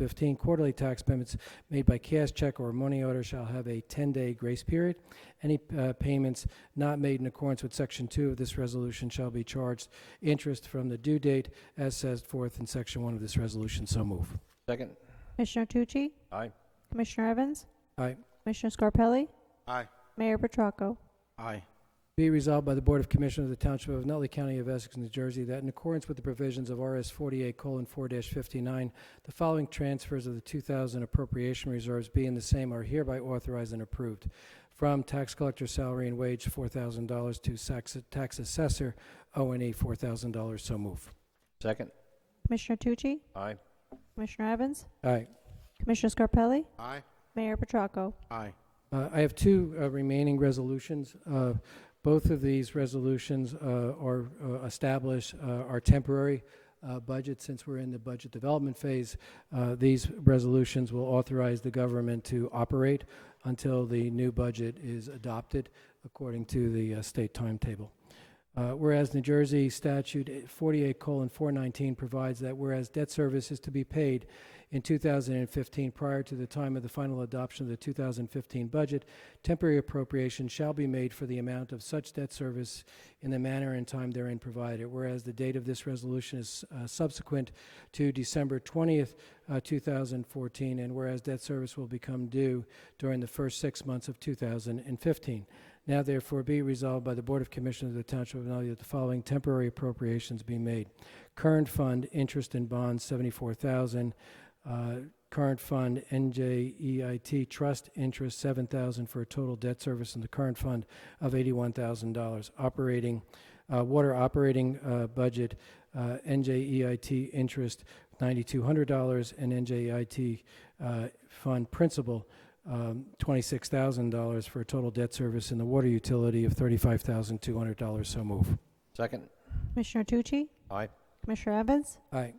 15, quarterly tax payments made by cash check or money order shall have a 10-day grace period. Any uh, payments not made in accordance with Section 2 of this resolution shall be charged interest from the due date as set forth in Section 1 of this resolution. So move. Second? Commissioner Tucci? Aye. Commissioner Evans? Aye. Commissioner Scarpelli? Aye. Mayor Petracco? Aye. Be resolved by the Board of Commissioners of the Township of Nutley County of Essex, New Jersey, that in accordance with the provisions of RS 48:4-59, the following transfers of the 2000 appropriation reserves being the same are hereby authorized and approved. From tax collector salary and wage, $4,000, to sax- tax assessor, O and E, $4,000. So move. Second? Commissioner Tucci? Aye. Commissioner Evans? Aye. Commissioner Scarpelli? Aye. Mayor Petracco? Aye. Uh, I have two uh, remaining resolutions. Uh, Both of these resolutions uh, are uh, establish uh, our temporary uh, budget. Since we're in the budget development phase, uh, these resolutions will authorize the government to operate until the new budget is adopted according to the uh, state timetable. Uh, Whereas New Jersey statute 48:419 provides that whereas debt service is to be paid in 2015 prior to the time of the final adoption of the 2015 budget, temporary appropriation shall be made for the amount of such debt service in the manner and time therein provided. Whereas the date of this resolution is uh, subsequent to December 20th, uh, 2014, and whereas debt service will become due during the first six months of 2015. Now therefore be resolved by the Board of Commissioners of the Township of Nutley that the following temporary appropriations be made. Current fund, interest and bonds, 74,000. Uh, Current fund, NJEIT trust interest, 7,000 for a total debt service in the current fund of $81,000. Operating, uh, water operating uh, budget, uh, NJEIT interest, $9,200, and NJEIT uh, fund principal, um, $26,000 for a total debt service in the water utility of $35,200. So move. Second? Commissioner Tucci? Aye. Commissioner Evans? Aye.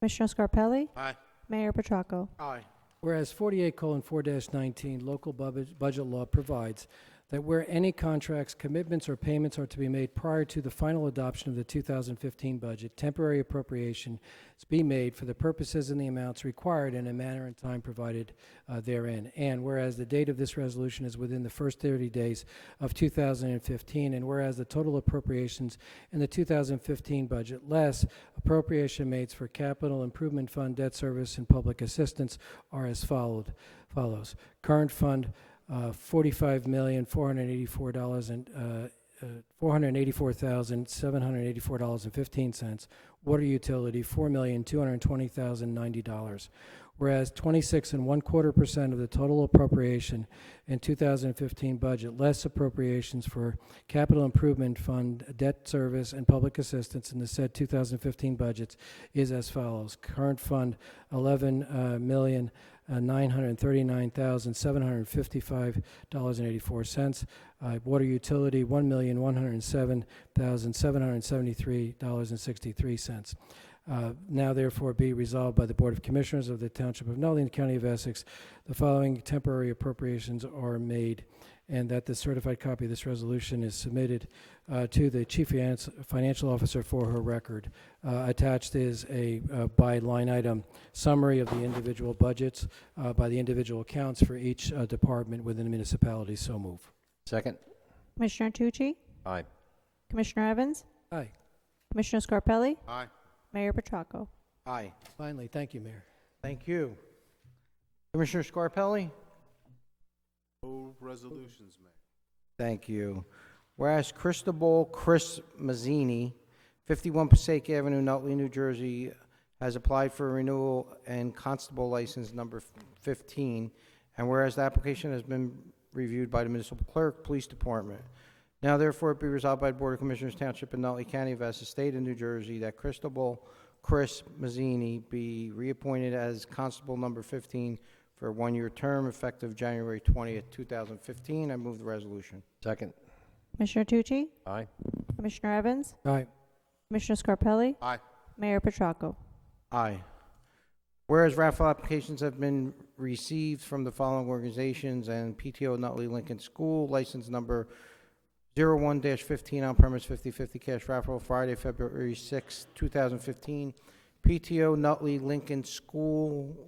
Commissioner Scarpelli? Aye. Mayor Petracco? Aye. Whereas 48:4-19 local bub- budget law provides that where any contracts, commitments, or payments are to be made prior to the final adoption of the 2015 budget, temporary appropriation is be made for the purposes and the amounts required in a manner and time provided uh, therein. And whereas the date of this resolution is within the first 30 days of 2015, and whereas the total appropriations in the 2015 budget, less appropriation made for capital improvement fund, debt service, and public assistance are as followed, follows. Current fund, uh, $45,484 and, uh, uh, $484,784.15. Water utility, $4,220,090. Whereas 26 and one quarter percent of the total appropriation in 2015 budget, less appropriations for capital improvement fund, debt service, and public assistance in the said 2015 budgets is as follows. Current fund, eleven uh, million nine hundred thirty-nine thousand seven hundred fifty-five dollars and eighty-four cents. Uh, water utility, one million one hundred seven thousand seven hundred seventy-three dollars and sixty-three cents. Uh, now therefore be resolved by the Board of Commissioners of the Township of Nutley and County of Essex, the following temporary appropriations are made, and that the certified copy of this resolution is submitted uh, to the Chief Finance- Financial Officer for her record. Uh, Attached is a uh, by line item summary of the individual budgets uh, by the individual accounts for each uh, department within the municipality. So move. Second? Commissioner Tucci? Aye. Commissioner Evans? Aye. Commissioner Scarpelli? Aye. Mayor Petracco? Aye. Finally, thank you, Mayor. Thank you. Commissioner Scarpelli? No resolutions, Mayor. Thank you. Whereas Cristobal Chris Mazzini, 51 Passaic Avenue, Nutley, New Jersey, has applied for a renewal and constable license number 15, and whereas the application has been reviewed by the municipal clerk, police department. Now therefore be resolved by the Board of Commissioners Township in Nutley County of Essex State of New Jersey that Cristobal Chris Mazzini be reappointed as constable number 15 for a one-year term effective January 20th, 2015. I move the resolution. Second. Commissioner Tucci? Aye. Commissioner Evans? Aye. Commissioner Scarpelli? Aye. Mayor Petracco? Aye. Whereas raffle applications have been received from the following organizations and PTO Nutley Lincoln School, license number 01-15 on-premise 50/50 cash raffle, Friday, February 6, 2015. PTO Nutley Lincoln School,